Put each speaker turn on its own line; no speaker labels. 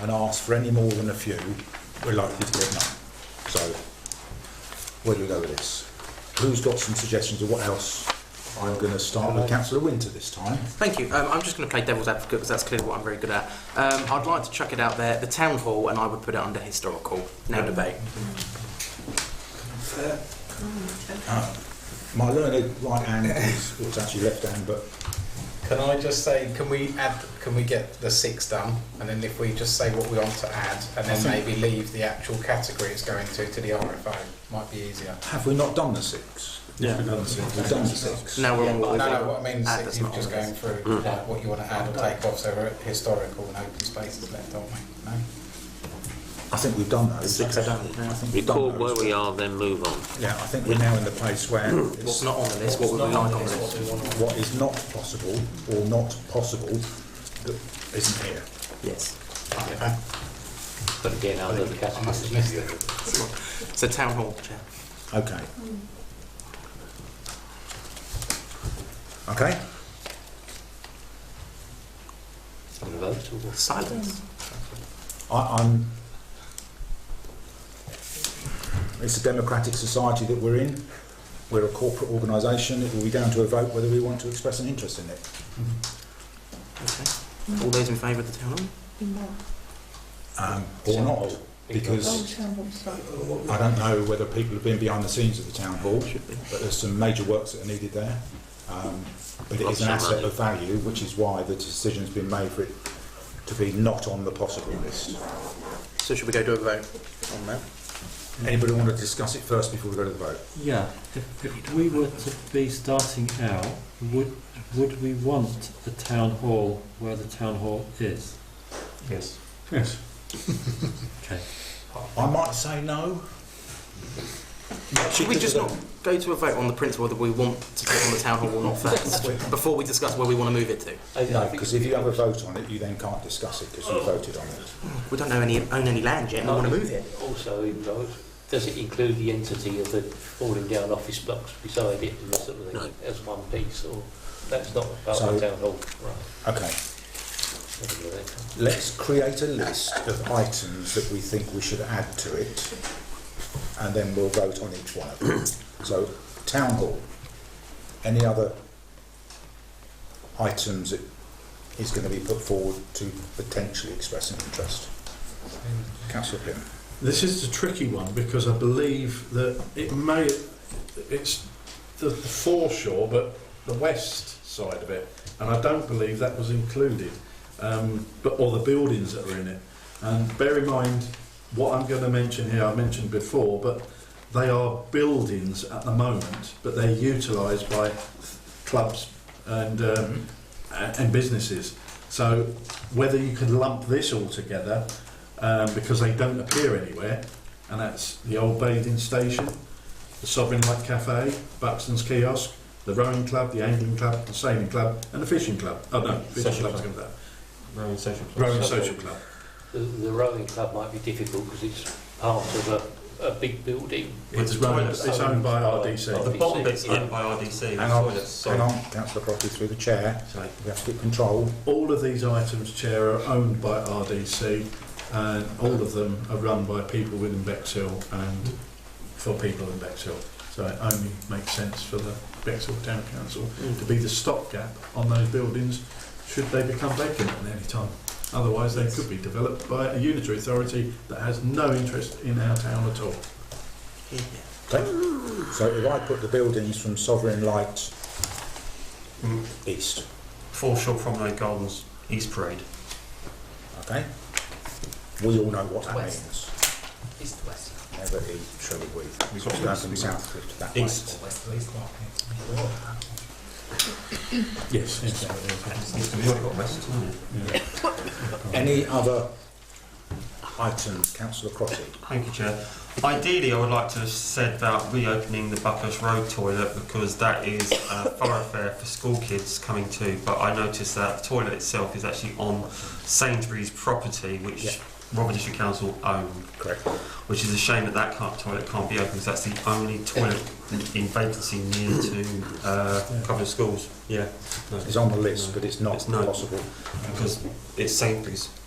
and ask for any more than a few, we're likely to get none. So, where do we go with this? Who's got some suggestions of what else? I'm going to start with councillor Winter this time.
Thank you. Um, I'm just going to play devil's advocate because that's clearly what I'm very good at. Um, I'd like to chuck it out there, the town hall, and I would put it under historical. No debate.
My learned right hand is, well, it's actually left hand, but
Can I just say, can we add, can we get the six done? And then if we just say what we want to add, and
I
then
think-
maybe leave the actual category it's going to, to the RFO, might be easier.
have we not done the six?
Yeah.
We've done the six. We've done the six.
Now we're on what
No,
we've
no,
got.
what I mean is
Add
that
Ah, that's
you're
not
just
on
going
this.
through like, what you want to add or take off, so we're at historical and open spaces left, aren't we? No?
I think we've done those.
Six are done, yeah.
I think we've
Record
done
where
those.
we are, then move on.
Yeah, I think we're now in the place where
What's
it's
not on the list? What would we like on the list?
what is not possible or not possible that isn't here.
Yes.
But again, under the
I must have
category.
missed it.
So town hall, chair.
Okay. Okay,
On the vote, or what?
Silence.
I, I'm. It's a democratic society that we're in. We're a corporate organisation. It will be down to a vote whether we want to express an interest in it.
Okay. All those in favour of the town hall?
Um, or not, because I don't know whether people have been behind the scenes of the town hall.
Should be.
but there's some major works that are needed there. Um, but it is an
Lots of
asset of value, which is why the decision's been made for it to be not on the possible list.
So should we go to a vote on that?
Anybody want to discuss it first before we go to the vote?
Yeah, if, if we were to be starting out, would, would we want a town hall where the town hall is?
Yes.
Yes. Okay,
I might say no.
Should we just not go to a vote on the principle that we want to put on the town hall or not first, before we discuss where we want to move it to?
No, because if you have a vote on it, you then can't discuss it because you voted on it.
We don't know any, own any land yet, and we want to move it.
Also, in vote, does it include the entity of the falling down office blocks beside it and that sort of
No.
thing as one piece, or that's not part of
So-
the town hall? Right.
Okay,
Let me go there.
let's create a list of items that we think we should add to it, and then we'll vote on each one of them. so, town hall. Any other items that is going to be put forward to potentially express an interest? Councillor Pym.
This is the tricky one because I believe that it may, it's the, the foreshore, but the west side of it, and I don't believe that was included, um, but or the buildings that are in it. And bear in mind what I'm going to mention here. I mentioned before, but they are buildings at the moment, but they're utilised by clubs and um, a- and businesses. So whether you could lump this all together um, because they don't appear anywhere, and that's the old bathing station, the Sovereign Light Cafe, Buxton's Kiosk, the Rowing Club, the Angling Club, the Sailing Club, and the Fishing Club. Oh no, Fishing
Social
Club's
club.
come down.
Rowan Social Club.
Rowing
Social.
Social Club.
The, the rowing club might be difficult because it's part of a, a big building.
It's,
the
run,
toilets
it's owned by
Oh,
RDC.
the
The bottom
bottom
bit's
bit's
owned
owned
by RDC.
Hang on, hang on, councillor Crosby through the chair.
Sorry.
We have to get control.
All of these items, Chair, are owned by RDC, and all of them are run by people within Bexhill and for people in Bexhill. So it only makes sense for the Bexhill Town Council to be the stopgap on those buildings should they become vacant at any time. Otherwise, they could be developed by a unitary authority that has no interest in our town at all.
Yeah.
Okay. So if I put the buildings from Sovereign Light east,
Foreshore Promenade Gardens, East Parade.
okay? We all know what that
West.
means.
East to west.
Never eat, shall we? We've got to go from Southcliff to that way.
East.
West Leeds Market.
Yes.
Any other items, councillor Crotty?
Thank you, Chair. Ideally, I would like to have said about reopening the Buckhurst Road toilet because that is a thoroughfare for school kids coming to. But I noticed that the toilet itself is actually on Sainsbury's property, which
Yeah.
Robert District Council own,
Correct.
which is a shame that that can't, toilet can't be opened because that's the only toilet in vacancy near to uh, a couple of schools. Yeah,
It's on the list, but it's not
It's not.
possible.
because it's Sainsbury's.